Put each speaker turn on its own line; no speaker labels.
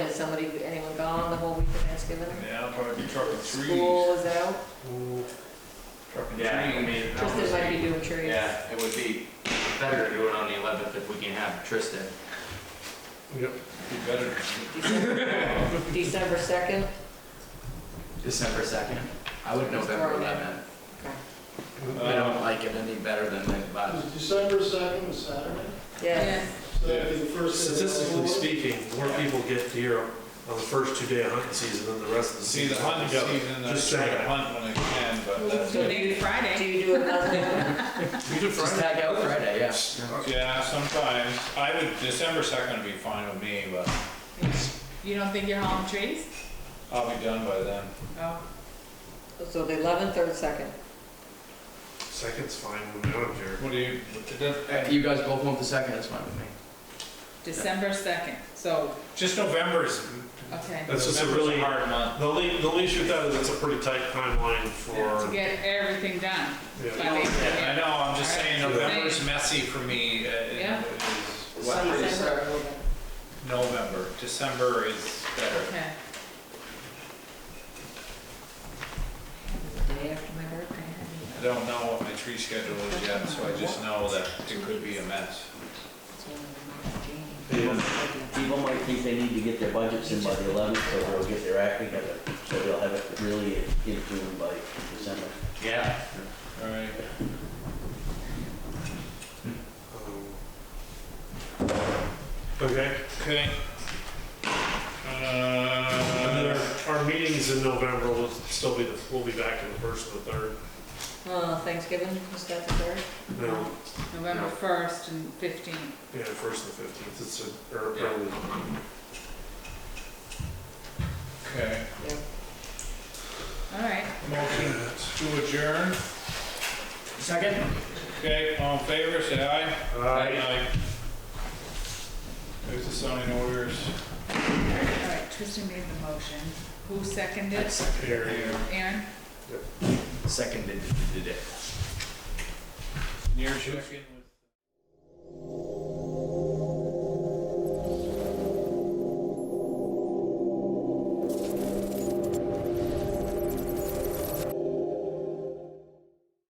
somebody, anyone gone the whole week of Thanksgiving?
Yeah, I'll probably be trucking
School
trees.
is out,
Trucking
Yeah, I
trees.
mean, that
Tristan
was-
might be doing trees.
yeah, it would be better to do it on the 11th if we can have Tristan.
Be better.
December- December second,
December 2nd? I would November 11th. I
Uh,
don't like it any better than the last.
Is December second a Saturday?
yeah.
So that'd be the first. day of the
Statistically
holiday?
speaking, more people get deer on the first two day of hunting season than the rest of the
See,
season.
the hunting
together.
season, I
Just
try to
saying.
hunt when I can, but that's,
So do
it.
you, do
Friday.
you do another,
We did
Just
Friday.
tag out Friday, yeah.
yeah, sometimes. I would, December second would be fine with me, but
You don't think you're hauling trees?
I'll be done by then.
Oh.
so the eleventh or the second?
Second's fine when I don't care.
What do you, it
If
doesn't-
You guys both want the 2nd, that's fine with me.
December 2nd, so,
just November is,
okay.
That's just a
November's
really-
a hard month.
The only, the only issue with that is it's a pretty tight timeline
To
for,
get everything done.
yeah,
by the-
I know, I'm just saying
Alright.
November's messy for me. uh,
Yeah.
is what-
December
is
or eleventh?
November, December is better.
Okay.
The Day after my birthday.
I don't know what my tree schedule is yet, so I just know that it could be a mess.
People might think they need to get their budgets in by the eleventh, so they'll get their act together, so they'll have it really in June by December.
Yeah.
All right,
um, Okay,
okay.
and then
Uh,
our, our meetings in November will still be, the we'll be back in the first and the third.
Uh, Thanksgiving, is that the third?
No,
November 1st and 15th.
yeah, first and fifteenth, it's a, or, early.
Okay,
Yep.
All right.
motion to adjourn.
Second?
Okay, all in favor, say aye.
Uh,
There's the signing orders.
All right, Tristan made the motion. Who seconded?
here.
Here.
Aaron?
Seconded it.
Near check-in.